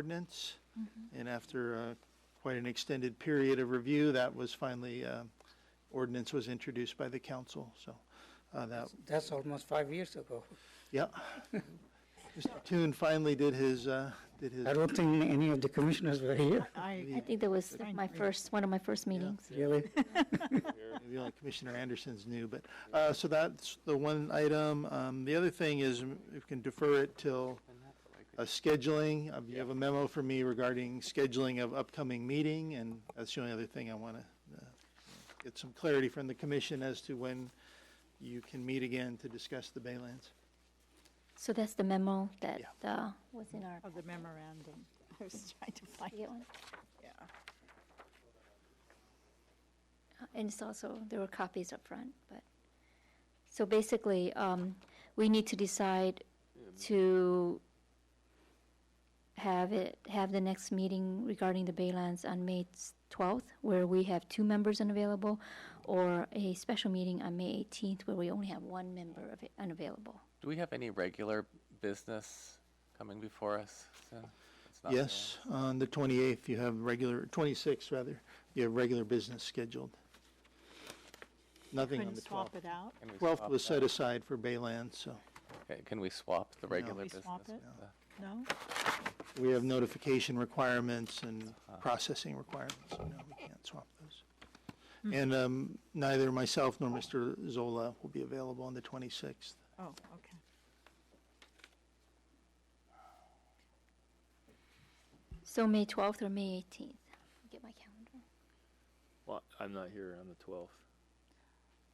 ordinance. And after uh, quite an extended period of review, that was finally, uh, ordinance was introduced by the council, so uh, that, That's almost five years ago. yeah. Mr. Toon finally did his, uh, did his, I don't think any of the commissioners were here, I I, think that was Fine. my first, one of my first meetings. really. maybe only Commissioner Anderson's new, but, uh, so that's the one item. Um, The other thing is, mm, we can defer it till uh, scheduling. Uh, You have a memo for me regarding scheduling of upcoming meeting, and that's the only other thing I want to get some clarity from the commission as to when you can meet again to discuss the Baylands. So that's the memo that Yeah. uh, was in our, of the memorandum. I was trying to find you get one? yeah. Uh, And it's also, there were copies up front, but, so basically, um, we need to decide to have it, have the next meeting regarding the Baylands on May s- 12th, where we have two members unavailable, or a special meeting on May 18th, where we only have one member of it unavailable. Do we have any regular business coming before us? soon? That's not Yes, on the 28th, you have regular, 26th rather, you have regular business scheduled. Nothing on Couldn't the swap 12th. it out. Can we 12th swap was set that? aside for Baylands, so Okay, Can we swap the regular We business? swap it? with the- No? we have notification requirements and processing requirements. so No, we can't swap those. And um, neither myself nor Mr. Zola will be available on the 26th. Oh, okay. So May 12th or May 18th? Get my calendar. Well, I'm not here on the twelfth.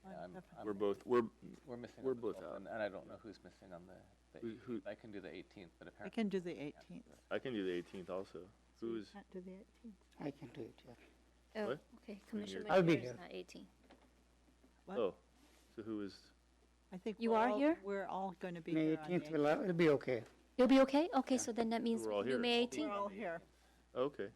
Yeah, I'm- I'm- We're both, we're, We're missing. on we're the both 12th, out. And and I don't know who's missing on the, the Who- who- 18th. I can do the 18th, but I apparently. can do the 18th. I can do the eighteenth also. Who is, Can't do the 18th. I can do it, yeah. Oh, What? Okay, Commissioner I'll be McNair here. is not 18. What? oh, so who is, I think. You we're are all- here? We're all going to be May here on the eighteenth 18th. will, will be okay. You'll be okay? Okay, so then that means We're we all can do here. May We're 18th. all here. oh, okay,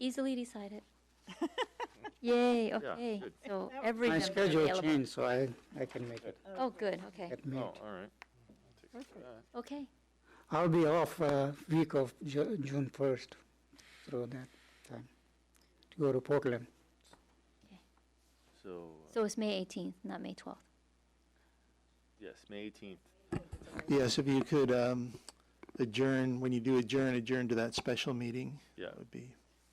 Easily decided. Yay, okay. good. So every My member schedule available. changed, so I, I can make it Oh, good, okay, at oh, May. all right. okay. I'll be off, uh, week of Ju- June first, through that time, to go to Portland. So, uh, So it's May 18th, not May 12th. yes, May eighteenth. Yes, if you could um, adjourn, when you do adjourn, adjourn to that special meeting. Yeah. That would be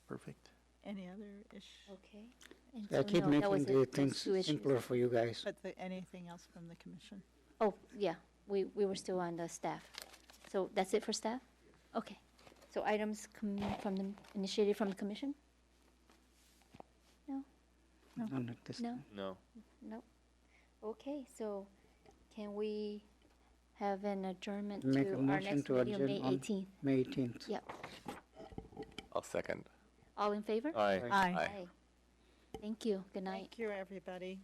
perfect. Any other ish, Okay. And I so keep no, that was making the it. Those things two issues. simpler for you guys. but the, anything else from the commission? Oh, yeah, we, we were still on the staff. So that's it for staff? Okay. So items com- from the, initiated from the commission? None at this No? time. No, Nope. Okay, so can we have an adjournment Make to a our motion next to meeting on May adjourn on 18th? May eighteenth. Yep. I'll second. All in favor? aye. Aye. Aye. Aye. Thank you. Good night. Thank you, everybody.